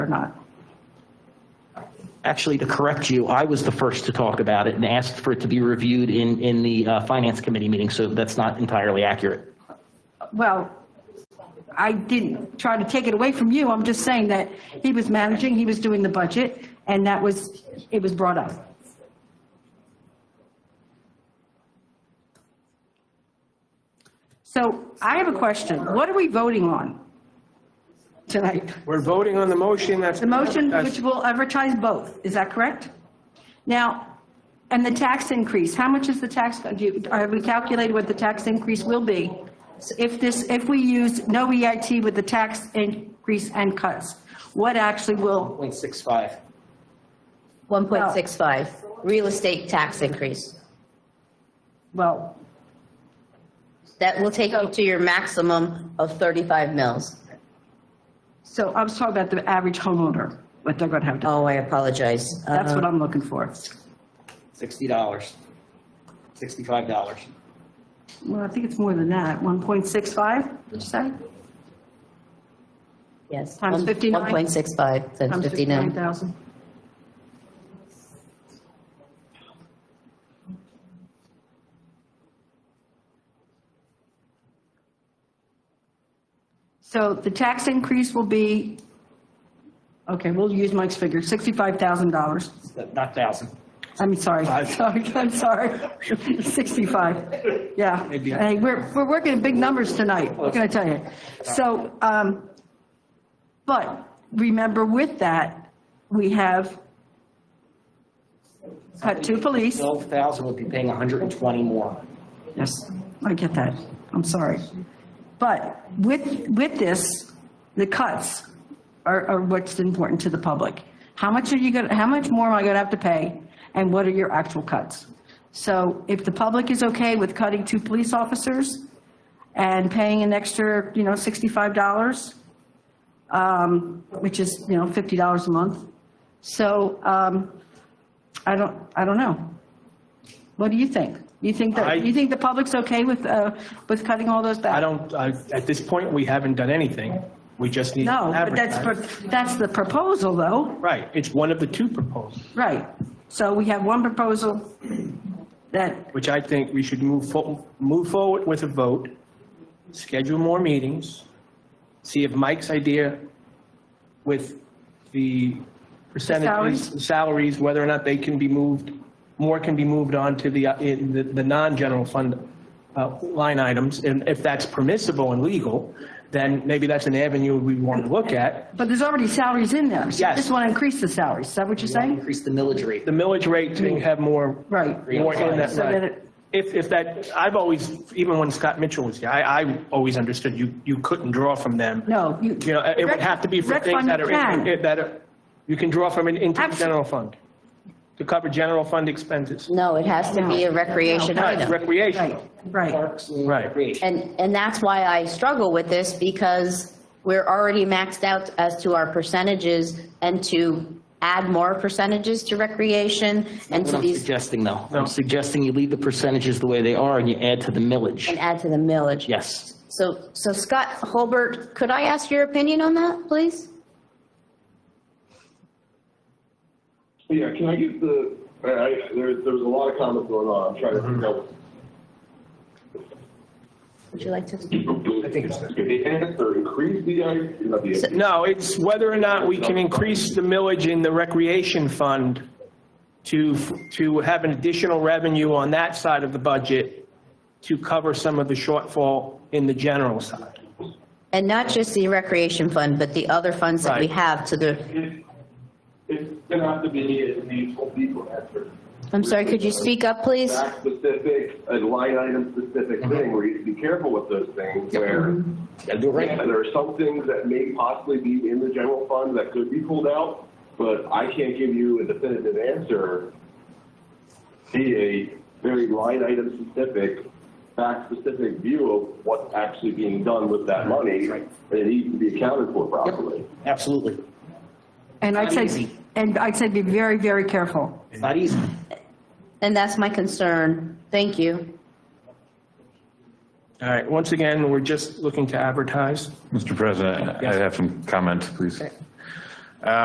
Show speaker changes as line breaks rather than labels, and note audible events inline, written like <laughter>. not.
Actually, to correct you, I was the first to talk about it and asked for it to be reviewed in, in the uh, Finance Committee meeting, so that's not entirely accurate.
Well, I didn't try to take it away from you. I'm just saying that he was managing, he was doing the budget, and that was, it was brought up. So I have a question. What are we voting on tonight?
We're voting on the motion that's.
The motion
that's-
which will advertise both, is that correct? Now, and the tax increase, how much is the tax, do you- have we calculated what the tax increase will be? If this, if we use no EIT with the tax increase and cuts, what actually will,
0.65.
1.65, real estate tax increase.
well,
That will take you to your maximum of 35 mils.
so I'm talking about the average homeowner, what they're going to have to,
Oh, I apologize.
that's what
Uh,
I'm looking for.
$60. $65.
Well, I think it's more than that, 1.65, did you say?
Yes.
times
one-
59.
1.65, times
Times
59.
59,000. So the tax increase will be, okay, we'll use Mike's figure, $65,000.
Not 1,000.
I'm sorry,
Five.
sorry, <laughs> I'm sorry, 65, yeah.
Maybe.
Hey, we're, we're working big numbers tonight, we're going to tell you. So, um, but remember with that, we have cut two police.
12,000 would be paying 120 more.
Yes, I get that, I'm sorry. But with, with this, the cuts are, are what's important to the public. How much are you going, to how much more am I going to have to pay? And what are your actual cuts? So if the public is okay with cutting two police officers and paying an extra, you know, $65, um, which is, you know, $50 a month, so um, I don't, I don't know. What do you think? You think
I-
that, you think the public's okay with, uh, with cutting all those back?
I don't, I- at this point, we haven't done anything. We just need. to
No, but that's,
advertise.
pro- that's the proposal, though,
Right, it's one of the two proposals,
right. So we have one proposal that,
which I think we should move, fo- move forward with a vote, schedule more meetings, see if Mike's idea with the percentages,
salaries?
salaries, whether or not they can be moved, more can be moved on to the, uh, in the, the non-general fund uh, line items. And if that's permissible and legal, then maybe that's an avenue we want to look at.
but there's already salaries in there. So you
Yes.
just want to increase the salaries, is that what you're saying?
Increase the millage rate.
the millage rate to have more.
Right.
More in that,
So that it-
if, if that, I've always, even when Scott Mitchell was here, I, I always understood you, you couldn't draw from them.
No, you.
You know, it would have to be for
Rec
things
fund
that are,
can.
in- that are, you can draw from an into the
Absolutely.
general fund to cover general fund expenses.
No, it has to be a recreation
Right,
item.
Recreational.
Right,
Parks and
Right.
Recreation.
And, and that's why I struggle with this, because we're already maxed out as to our percentages, and to add more percentages to recreation and
What
to
I'm
these,
suggesting, though, I'm suggesting you leave the percentages the way they are and you add to the millage.
and add to the millage.
Yes.
So, so Scott Holbert, could I ask your opinion on that, please?
Yeah, can I get the, I, I, there, there was a lot of comments going on, I'm trying to figure out.
Would you like to?
Mm-hmm. I think it's. If they enhance or increase the, I, not the.
No, it's whether or not we can increase the millage in the recreation fund to, to have an additional revenue on that side of the budget to cover some of the shortfall in the general side.
And not just the recreation fund, but the other funds that we
Right.
have to the,
It's, it's gonna have to be a needful, needful effort.
I'm sorry, could you speak up, please?
Fact specific, a line item specific thing, where you have to be careful with those things, where
Gotta do it
Yeah,
right.
there are some things that may possibly be in the general fund that could be pulled out, but I can't give you a definitive answer. Be a very line item specific, fact specific view of what's actually being done with that money, and it needs to be accounted for properly.
Absolutely.
and I'd say,
Easy.
and I'd say be very, very careful.
It's not easy.
And that's my concern. Thank you.
All right, once again, we're just looking to advertise.
Mr. President, I have some comments, please.